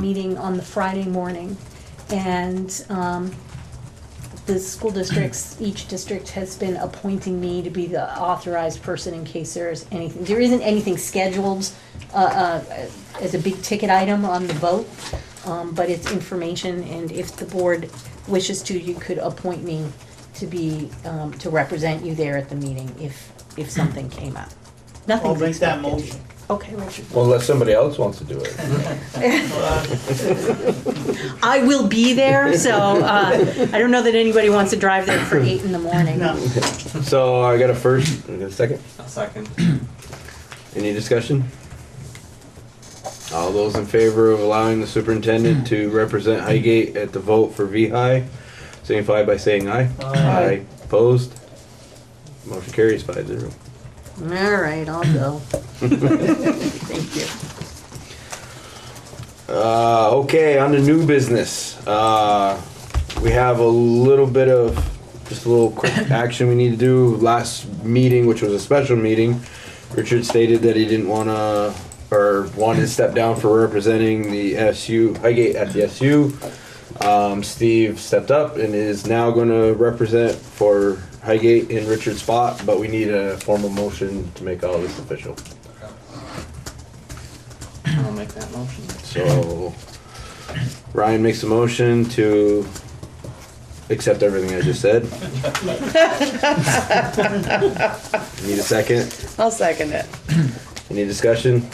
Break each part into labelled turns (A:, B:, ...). A: meeting on the Friday morning, and um, the school districts, each district has been appointing me to be the authorized person in case there's anything, there isn't anything scheduled uh, uh, as a big ticket item on the vote, um, but it's information, and if the board wishes to, you could appoint me to be, um, to represent you there at the meeting if, if something came up.
B: I'll
A: Nothing's
B: make that
A: expected.
B: motion.
A: Okay, Richard.
C: Unless somebody else wants to do it.
B: Uh,
A: I will be there, so uh, I don't know that anybody wants to drive there for eight in the morning.
B: No,
C: So I got a first, I got a second.
D: A second.
C: Any discussion? All those in favor of allowing the superintendent to represent Highgate at the vote for VHI, signify by saying aye.
B: Aye.
C: Opposed? Motion carries five zero.
A: All right, I'll go. Thank you.
C: Uh, okay, on to new business. Uh, we have a little bit of just a little quick action we need to do. Last meeting, which was a special meeting, Richard stated that he didn't want to or wanted to step down for representing the SU Highgate at the SU. Um, Steve stepped up and is now going to represent for Highgate in Richard's spot, but we need a formal motion to make all this official.
D: I'll make that motion.
C: So Ryan makes a motion to accept everything I just said. Need a second?
E: I'll second it.
C: Any discussion?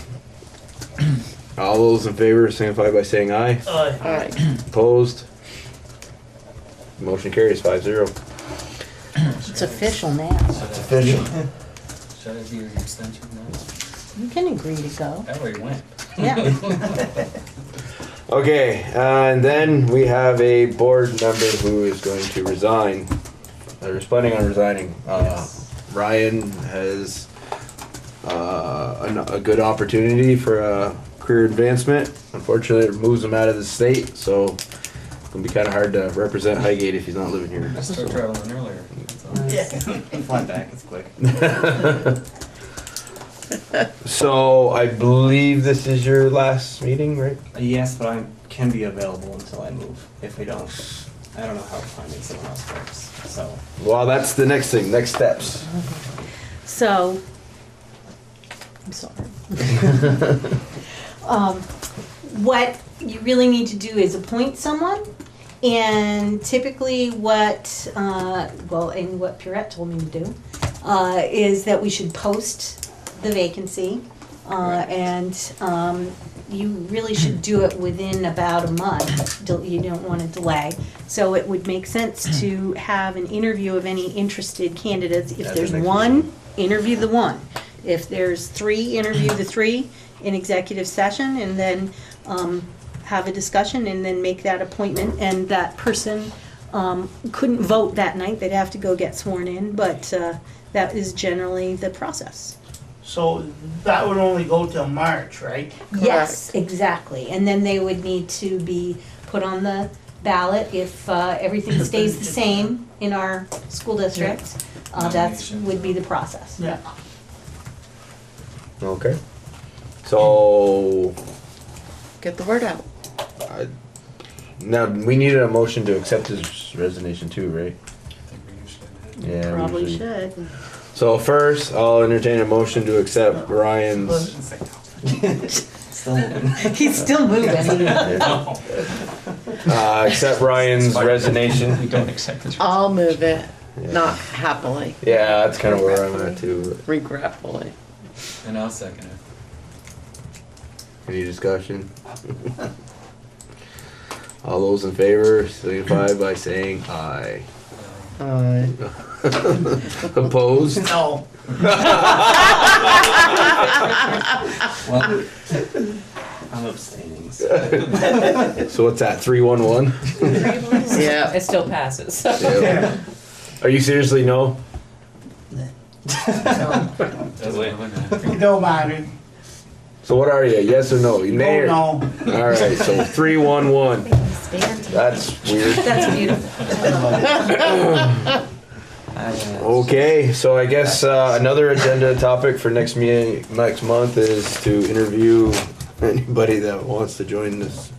C: All those in favor signify by saying aye.
B: uh,
E: All right.
C: Opposed? Motion carries five zero.
A: It's official now.
D: Should I-
C: Official.
D: Should I be an extension now?
A: You can agree to go.
D: That way it went.
A: Yeah.
C: Okay, uh, and then we have a board member who is going to resign. They're planning on resigning. Uh, Ryan has uh, an- a good opportunity for a career advancement. Unfortunately, it moves him out of the state, so it'll be kind of hard to represent Highgate if he's not living here.
D: I started traveling earlier. Fly back, it's quick.
C: So I believe this is your last meeting, right?
D: Uh, Yes, but I can be available until I move. If we don't, I don't know how finding someone else works, so.
C: Well, that's the next thing, next steps.
A: So, I'm sorry. um, what you really need to do is appoint someone, and typically, what uh, well, and what Purette told me to do uh, is that we should post the vacancy, uh, and um, you really should do it within about a month. Del- You don't want to delay. So it would make sense to have an interview of any interested candidates. If
C: At the
A: there's
C: next
A: one,
C: meeting.
A: interview the one. If there's three, interview the three in executive session and then um, have a discussion and then make that appointment. And that person um, couldn't vote that night, they'd have to go get sworn in, but uh, that is generally the process.
B: so that would only go till March, right?
A: Yes, exactly. And then they would need to be put on the ballot if uh, everything stays the same in our school district. Uh, That's,
D: Nominations.
A: would be the process.
B: Yeah.
C: Okay. So
E: Get the word out.
C: I- Now, we needed a motion to accept his resignation too, right? Yeah. we
A: Probably
C: usually-
A: should.
C: So first, I'll entertain a motion to accept Ryan's.
D: Still moving.
A: He's still moving.
C: Uh, accept Ryan's resignation.
D: don't accept this.
E: I'll move it.
C: Yeah.
E: Not happily,
C: Yeah, that's kind of where I'm at too.
E: regretfully.
D: And I'll second it.
C: Any discussion? All those in favor signify by saying aye.
E: Uh,
C: Opposed?
B: No,
D: Well,
A: Um,
D: I'm abstaining, so.
C: So what's that? Three one one.
E: yeah.
F: It still passes.
C: Are you seriously no?
B: it don't matter.
C: So what are you? Yes or no? Nay or-
B: Oh, no.
C: All right, so three one one. That's weird.
A: That's beautiful.
C: Okay, so I guess uh, another agenda topic for next me next month is to interview anybody that wants to join this